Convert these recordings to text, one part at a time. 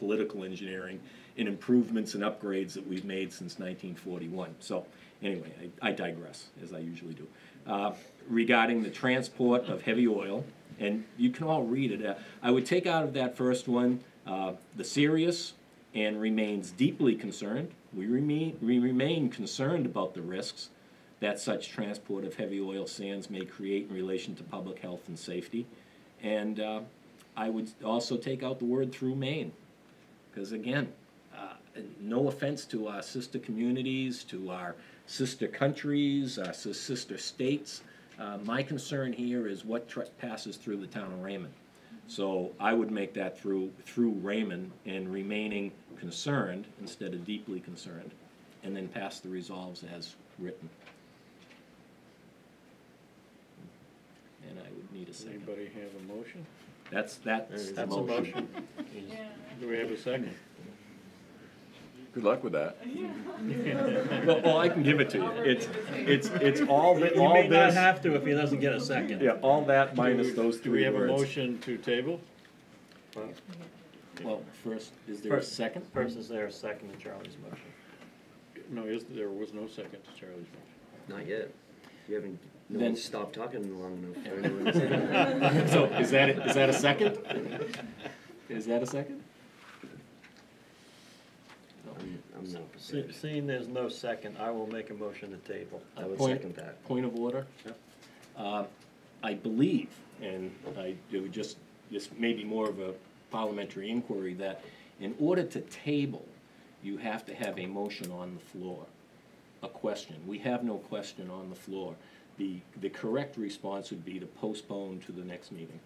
political engineering and improvements and upgrades that we've made since 1941. So, anyway, I, I digress, as I usually do. Uh, regarding the transport of heavy oil, and you can all read it. Uh, I would take out of that first one uh, the serious and remains deeply concerned. We remain, we remain concerned about the risks that such transport of heavy oil sands may create in relation to public health and safety. And uh, I would also take out the word through Maine, because again, uh, no offense to our sister communities, to our sister countries, our sis- sister states. Uh, my concern here is what tr- passes through the town of Raymond. So I would make that through, through Raymond and remaining concerned instead of deeply concerned, and then pass the resolves as written. And I would need a second. Anybody have a motion? That's, that's the That's a motion. motion. Do we have a second? Good luck with that. Well, well, I can give it to you. It's, it's, it's all, thi- You all may not this, have to if he doesn't get a second. yeah, all that minus those Do we three have a words. motion to table? Well, first, is there a First. second? First is there a second to Charlie's motion? No, is, there was no second to Charlie's motion. Not yet. You haven't, no Then- one's stopped talking long enough for anyone to say that. So is that, a- is that a second? Is that a second? I'm- I'm not Se- prepared. Seeing there's no second, I will make a motion to table. I would Point- second that. Point of order. Uh, I believe, and I, it would just, this may be more of a parliamentary inquiry, that in order to table, you have to have a motion on the floor, a question. We have no question on the floor. The, the correct response would be to postpone to the next meeting.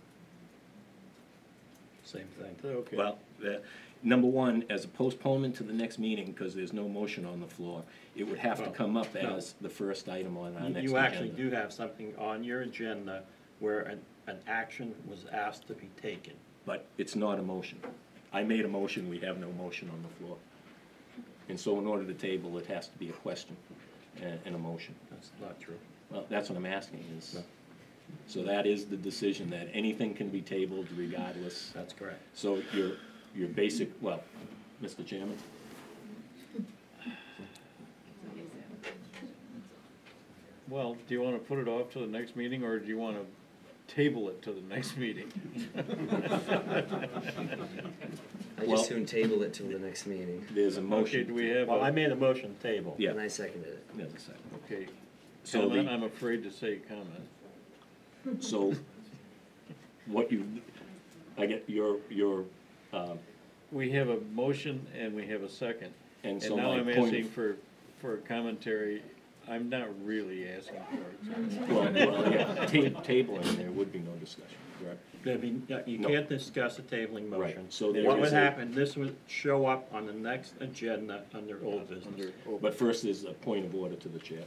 Same thing. Okay. Well, the, number one, as a postponement to the next meeting, because there's no motion on the floor, it would have to Well, come up no. as the first item on our next You- agenda. You actually do have something on your agenda where an, an action was asked to be taken. But it's not a motion. I made a motion, we have no motion on the floor. And so in order to table, it has to be a question and, and a motion. That's not true. Well, that's what I'm asking is, so that is the decision, that anything can be tabled regardless. That's correct. So your, your basic, well, Mr. Chairman, Well, do you wanna put it off to the next meeting, or do you wanna table it to the next meeting? I Well- just soon table it till the next meeting, there's a Okay, motion. do we have, Well, I a- made a motion to table. Yeah. and I seconded it. There's a second. okay, So comment, the, I'm afraid to say comment. so what you, I get your, your, um, We have a motion and we have a second. and And so now my I'm point of- asking for, for commentary. I'm not really asking for it. Well, well, yeah, ta- table in there would be no discussion, correct? There'd be, yeah, you No. can't discuss a tabling Right, motion. so there What is would a- happen, this would show up on the next agenda under old business. Under open. But first is a point of order to the chair,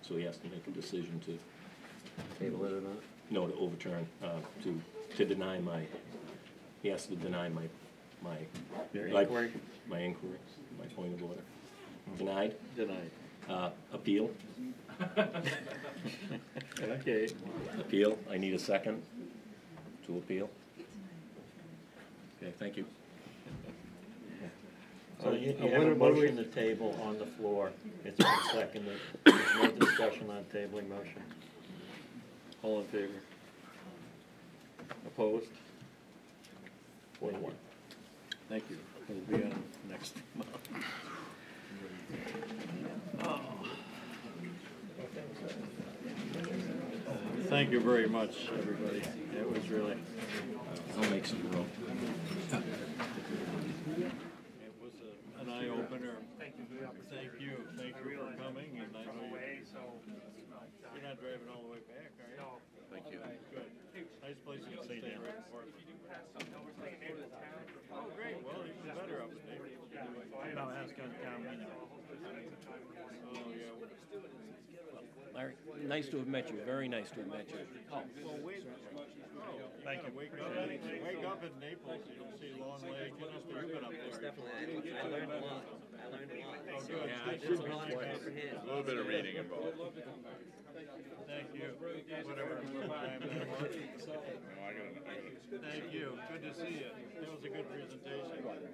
so he has to make a decision to, Table it or not? no, to overturn, uh, to, to deny my, he has to deny my, my. Your my- inquiry? My inquiry, my point of order. Denied, Denied. uh, appeal, Okay, appeal, I need a second to appeal. Okay, thank you. So Oh, you Uh, you what have a do- what do we- motion to table on the floor, it's been seconded, there's no discussion on tabling motion. all in favor? Opposed? Four to one. Thank you. It'll be on next month. Thank you very much, everybody. It was really, I'll make some room. it was a- an eye-opener. Thank you. Thank you, thank you for coming, and I know you- you're not driving all the way back, are you? No. Thank you. Good. Nice place to stay down. Oh, great, well, even better upstate. I'll ask on town meeting. Oh, yeah. Larry, nice to have met you, very nice to have met you. Thank you. Wake up, wake up in Naples, you don't see Long Lake, you must have been up there. I learned a lot, I learned a lot. Oh, A little bit of reading involved. Thank you. Whatever time that was. Thank you, good to see you. That was a good presentation.